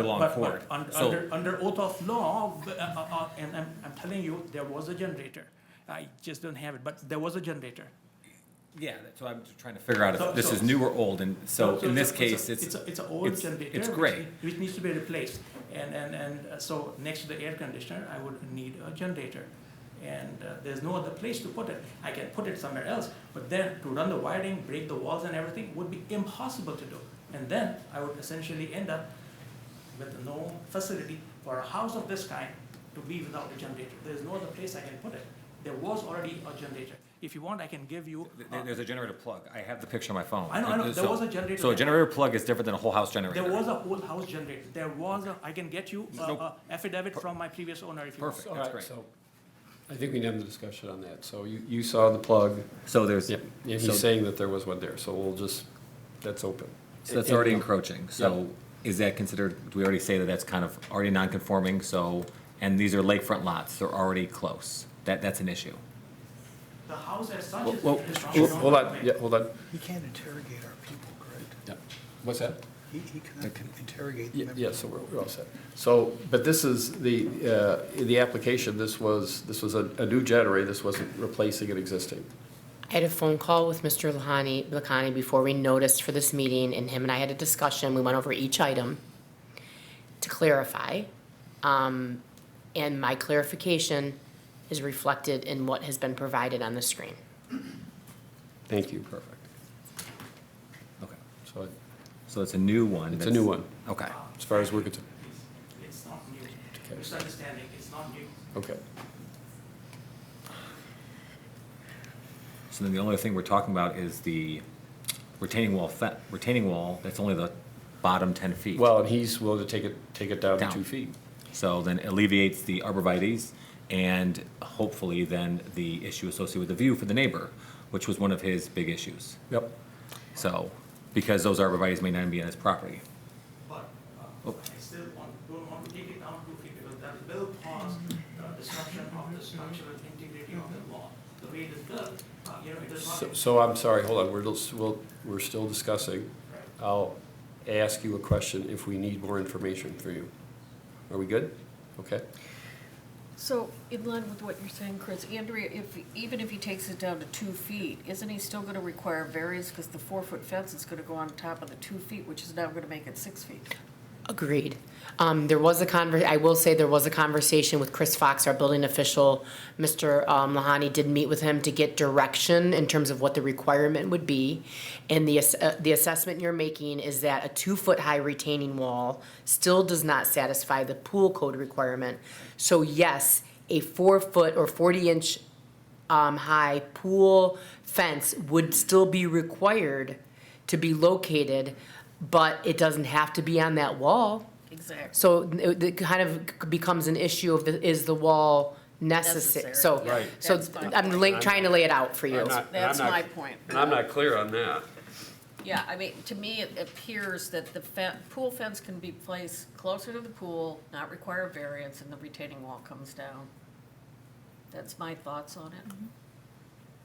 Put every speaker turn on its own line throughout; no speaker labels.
along
But,
for it.
but un-
So-
under, under oath of law, uh, uh, uh, and I'm, I'm telling you, there was a generator. I just don't have it, but there was a generator.
Yeah, so I'm just trying to figure out
So-
if this
so-
is new or old, and so in this
a-
case,
a-
it's,
a- It's an old
it's-
generator.
it's
which
gray.
need- Which needs to be replaced, and, and, and uh, so next to the air conditioner, I would need a generator. And uh, there's no other place to put it, I can put it somewhere else, but then to run the wiring, break the walls and everything would be impossible to do. And then I would essentially end up with no facility for a house of this kind to be without a generator. There's no other place I can put it, there was already a generator. If you want, I can give you. uh,
there- there's a generator plug. I have the picture on my phone.
I know, I know. There
So-
was a generator
So a
there.
generator plug is different than a whole house generator.
There was a whole house generator, there was a, I can get you a,
No.
a affidavit from my previous owner if you want.
Perfect,
All
that's
right,
great.
so I think we need to have the discussion on that. So you, you saw the plug,
So there's,
yep, and
so-
he's saying that there was one there, so we'll just, that's open.
so that's already
And-
encroaching, so is that considered, do we already say that that's kind of already non-conforming, so, and these are lakefront lots, they're already close, that, that's an issue.
The house as such
Well,
is.
well,
is not
well,
shown
Hold on,
plan.
yeah, hold on,
He can't interrogate our people, correct?
yeah. What's that?
He, he cannot interrogate
Ye-
them.
Yeah, so we're, we're all set. So, but this is the, uh, in the application, this was, this was a, a new generator, this wasn't replacing an existing.
I had a phone call with Mr. Lahani, Lakani before we noticed for this meeting, and him and I had a discussion. We went over each item to clarify. Um, and my clarification is reflected in what has been provided on the screen.
Thank you, perfect.
Okay,
So
so it's a new one.
it's a
that's-
new one,
Okay,
as far as we're concerned.
It's not new,
Okay.
misunderstanding, it's not new.
Okay,
so then the only thing we're talking about is the retaining wall, fe- retaining wall, that's only the bottom ten feet.
well, and he's willing to take it, take it down to
Down.
two feet.
So then alleviates the arborvitae's and hopefully then the issue associated with the view for the neighbor, which was one of his big issues.
Yep.
So, because those arborvitae's may not be on his property.
But uh,
Oh.
I still want, don't want to take it down too feet because that will cause the destruction of the structural integrity of the wall, the way it is built. Uh, You know, it is
So-
not,
So I'm sorry, hold on, we're, just- we'll- we're still discussing.
Right.
I'll ask you a question if we need more information for you. Are we good? Okay.
So in line with what you're saying, Chris, Andrea, if, even if he takes it down to two feet, isn't he still gonna require variance because the four-foot fence is gonna go on top of the two feet, which is now gonna make it six feet?
Agreed. Um, there was a conver, I will say there was a conversation with Chris Fox, our building official. Mr. um, Lahani did meet with him to get direction in terms of what the requirement would be. And the, ass- uh, the assessment you're making is that a two-foot-high retaining wall still does not satisfy the pool code requirement. So yes, a four-foot or forty-inch um, high pool fence would still be required to be located, but it doesn't have to be on that wall.
Exactly.
So it it kind of becomes an issue of the, is the wall necessary?
Necessary.
So,
Right.
so
That's my
I'm
point.
lay- trying to lay it out for you.
That's my point.
I'm not clear on that.
Yeah, I mean, to me, it appears that the fe- pool fence can be placed closer to the pool, not require variance, and the retaining wall comes down. That's my thoughts on it.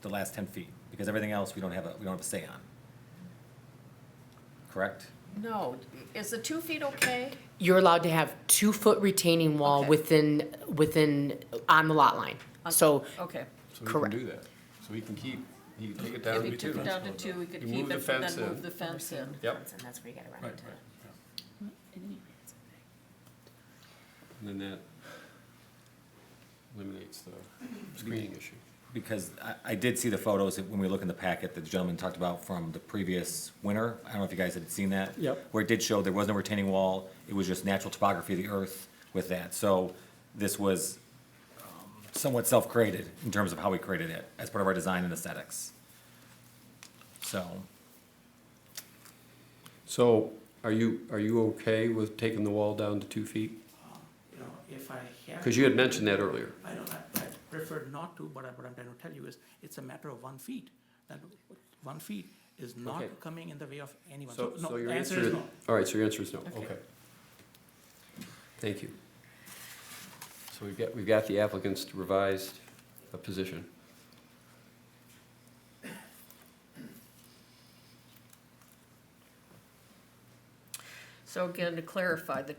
The last ten feet, because everything else we don't have a, we don't have a say on. Correct?
No, is the two feet okay?
You're allowed to have two-foot retaining wall
Okay.
within, within, on the lot line. So
Okay.
So we can
Correct.
do that. So we can keep, he can take it down
If
to two.
he took it down to two, we could
You
keep
move the
it, but
fence
then
in.
move the fence in.
Yep.
And that's where you gotta run
Right,
into
right,
it.
And then that eliminates the screening issue.
Because I, I did see the photos, when we look in the packet, that the gentleman talked about from the previous winter. I don't know if you guys had seen that.
Yep.
Where it did show there was no retaining wall, it was just natural topography of the earth with that. So this was um, somewhat self-created in terms of how we created it as part of our design and aesthetics. So,
So are you, are you okay with taking the wall down to two feet?
you know, if I have.
Because you had mentioned that earlier.
I don't, I, I prefer not to, but I- what I'm trying to tell you is, it's a matter of one feet. That one feet is not
Okay.
coming in the way of anyone.
So,
no,
so your
the
answer is,
no.
all right, so your answer is no,
Okay.
okay. Thank you. So we've got, we've got the applicant's revised uh, position.
So again, to clarify, the